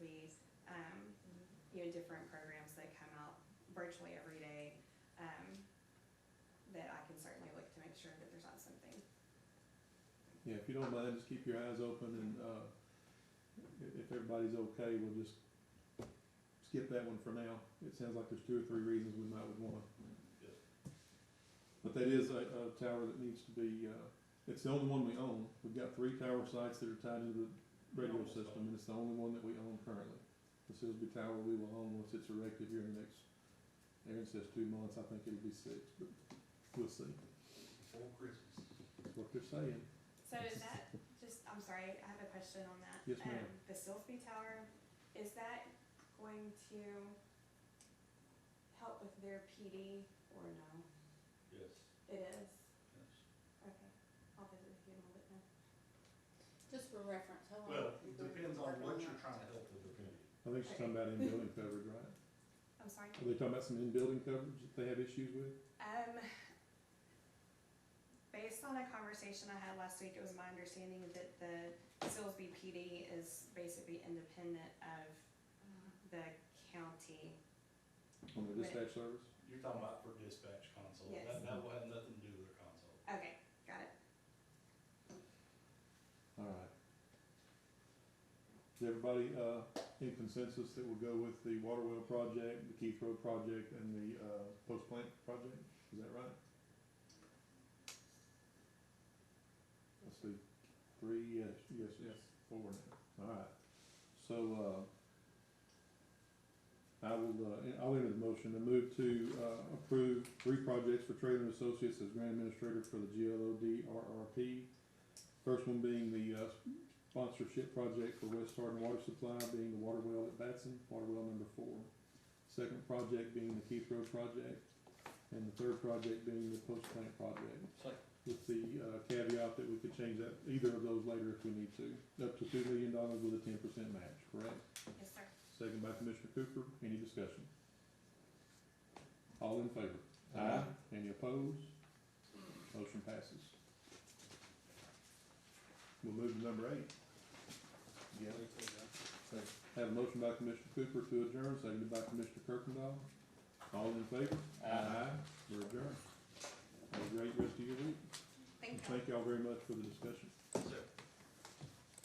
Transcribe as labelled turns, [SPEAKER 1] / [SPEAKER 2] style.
[SPEAKER 1] um, different programs that come out virtually every day, um, that I can certainly look to make sure that there's not something.
[SPEAKER 2] Yeah, if you don't mind, just keep your eyes open and, uh, i- if everybody's okay, we'll just skip that one for now. It sounds like there's two or three reasons we might would wanna.
[SPEAKER 3] Yes.
[SPEAKER 2] But that is a, a tower that needs to be, uh, it's the only one we own. We've got three tower sites that are tied into the radio
[SPEAKER 3] Almost
[SPEAKER 2] system, and it's the only one that we own currently. The Sisby Tower we will own once it's erected here in the next, Aaron says two months, I think it'll be six, but we'll see.
[SPEAKER 3] Before Christmas.
[SPEAKER 2] That's what they're saying.
[SPEAKER 1] So is that, just, I'm sorry, I have a question on that.
[SPEAKER 2] Yes, ma'am.
[SPEAKER 1] Um, The Silsby Tower, is that going to help with their PD or no?
[SPEAKER 3] Yes.
[SPEAKER 1] It is,
[SPEAKER 3] Yes.
[SPEAKER 1] okay, I'll visit with you in a little bit then.
[SPEAKER 4] Just for reference, how
[SPEAKER 3] Well,
[SPEAKER 4] long?
[SPEAKER 3] it depends on what you're trying to
[SPEAKER 4] do.
[SPEAKER 3] help with the community.
[SPEAKER 2] I think she's talking about in-building coverage, right?
[SPEAKER 1] I'm sorry?
[SPEAKER 2] Are they talking about some in-building coverage that they have issues with?
[SPEAKER 1] Um, based on a conversation I had last week, it was my understanding that the Silsby PD is basically independent of the county.
[SPEAKER 2] On the dispatch service?
[SPEAKER 3] You're talking about for dispatch console,
[SPEAKER 1] Yes.
[SPEAKER 3] that, that will have nothing to do with their console.
[SPEAKER 1] Okay, got it.
[SPEAKER 2] All right. Is everybody, uh, in consensus that we'll go with the water well project, the Keith Road project, and the, uh, post plant project? Is that right? Let's see, three, yes, yes, yes, four now. All right. So, uh, I will, uh, I'll enter the motion to move to, uh, approve three projects for Trailer and Associates as grant administrator for the GLODRRP. First one being the uh, sponsorship project for West Hardin Water Supply, being the water well at Batson, water well number four. Second project being the Keith Road project, and the third project being the post plant project. With the uh, caveat that we could change that, either of those later if we need to, up to two million dollars with a ten percent match, correct?
[SPEAKER 1] Yes, sir.
[SPEAKER 2] Second by Commissioner Cooper, any discussion? All in favor?
[SPEAKER 3] Aye.
[SPEAKER 2] Any opposed? Motion passes. We'll move to number eight. Yeah. Have a motion by Commissioner Cooper to adjourn, seconded by Commissioner Kirkendall. All in favor?
[SPEAKER 3] Aye.
[SPEAKER 2] We're adjourned. Have a great rest of your week.
[SPEAKER 1] Thank
[SPEAKER 2] And
[SPEAKER 1] you.
[SPEAKER 2] thank y'all very much for the discussion.
[SPEAKER 3] Yes, sir.